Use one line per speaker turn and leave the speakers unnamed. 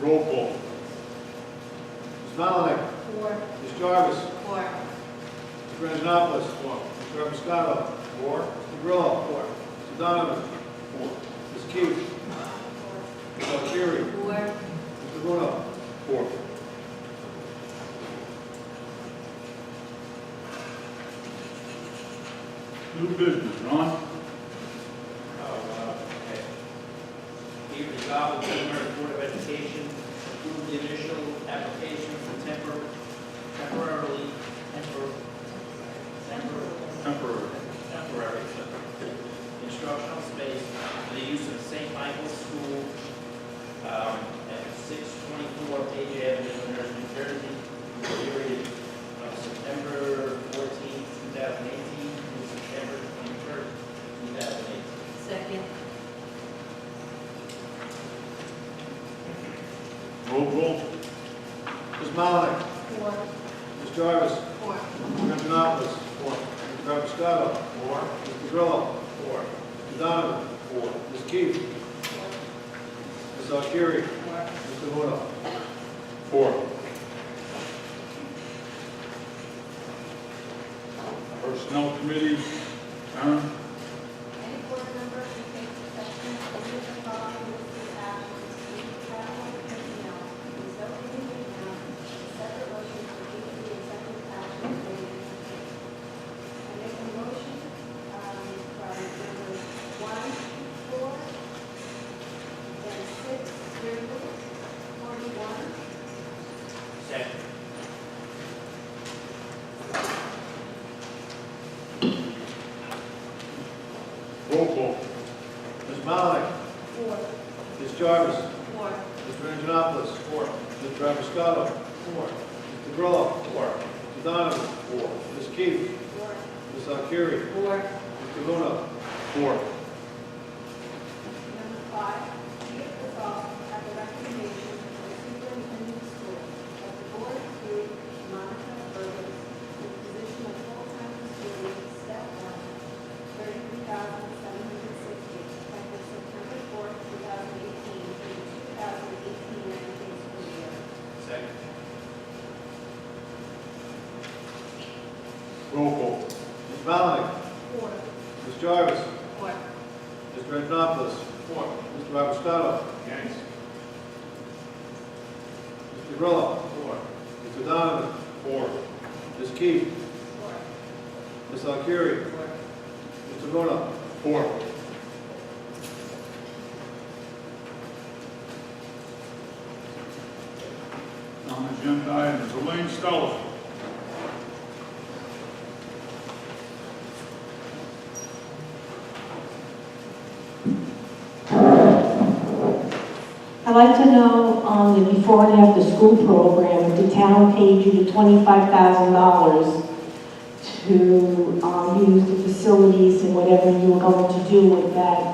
Roll call.
Ms. Malinick.
Four.
Ms. Jarvis.
Four.
Mr. Anjanopoulos. Four. Mr. Rappiscato. Four. Mr. Grillo. Four. Mr. Donovan. Four. Ms. Keith. Ms. Alcieri.
Four.
Mr. Bruno.
Four. New business, Ron?
Be Uh, resolved, the Lunenburg Board of Education approved the initial application for tempor- temporarily, tempor- tempor-
Temporary.
temporary instructional space for the use of St. Michael's School um, at 624 Page Avenue, Lunenburg, New Jersey, for the period of September 14, 2018 through September 23, 2018.
Second.
Roll call.
Ms. Malinick.
Four.
Ms. Jarvis.
Four.
Mr. Anjanopoulos. Four. Mr. Rappiscato. Four. Mr. Grillo. Four. Mr. Donovan. Four. Ms. Keith. Ms. Alcieri.
Four.
Mr. Bruno.
Four. Personnel committee, Karen?
Any board member who takes exception to any of the following listed actions, leave travel or personnel, resulting in account, a separate motion to leave the executive action related to this. I make a motion, um, from numbers one, through four, then six, through forty-one,
Second.
Roll call.
Ms. Malinick.
Four.
Ms. Jarvis.
Four.
Mr. Anjanopoulos. Four. Mr. Rappiscato. Four. Mr. Grillo. Four. Mr. Donovan. Four. Ms. Keefe.
Four.
Ms. Alcieri.
Four.
Mr. Luna.
Four.
Number five, be it resolved at the recommendation of the superintendent of schools that the board approve Monica Burgess to the position of full-time custodian, step one, thirty-three thousand seven hundred sixty, effective September fourth, two thousand eighteen, through the two thousand eighteen nineteen school year.
Second.
Roll call.
Ms. Malinick.
Four.
Ms. Jarvis.
Four.
Mr. Anjanopoulos. Four. Mr. Rappiscato.
Yes.
Mr. Grillo. Four. Mr. Donovan.
Four.
Ms. Keefe. Ms. Alcieri.
Four.
Mr. Luna.
Four. Non-agenda items, Elaine Stella.
I'd like to know on the before and after school program, if the town paid you the twenty-five thousand dollars to um, use the facilities and whatever you were going to do with that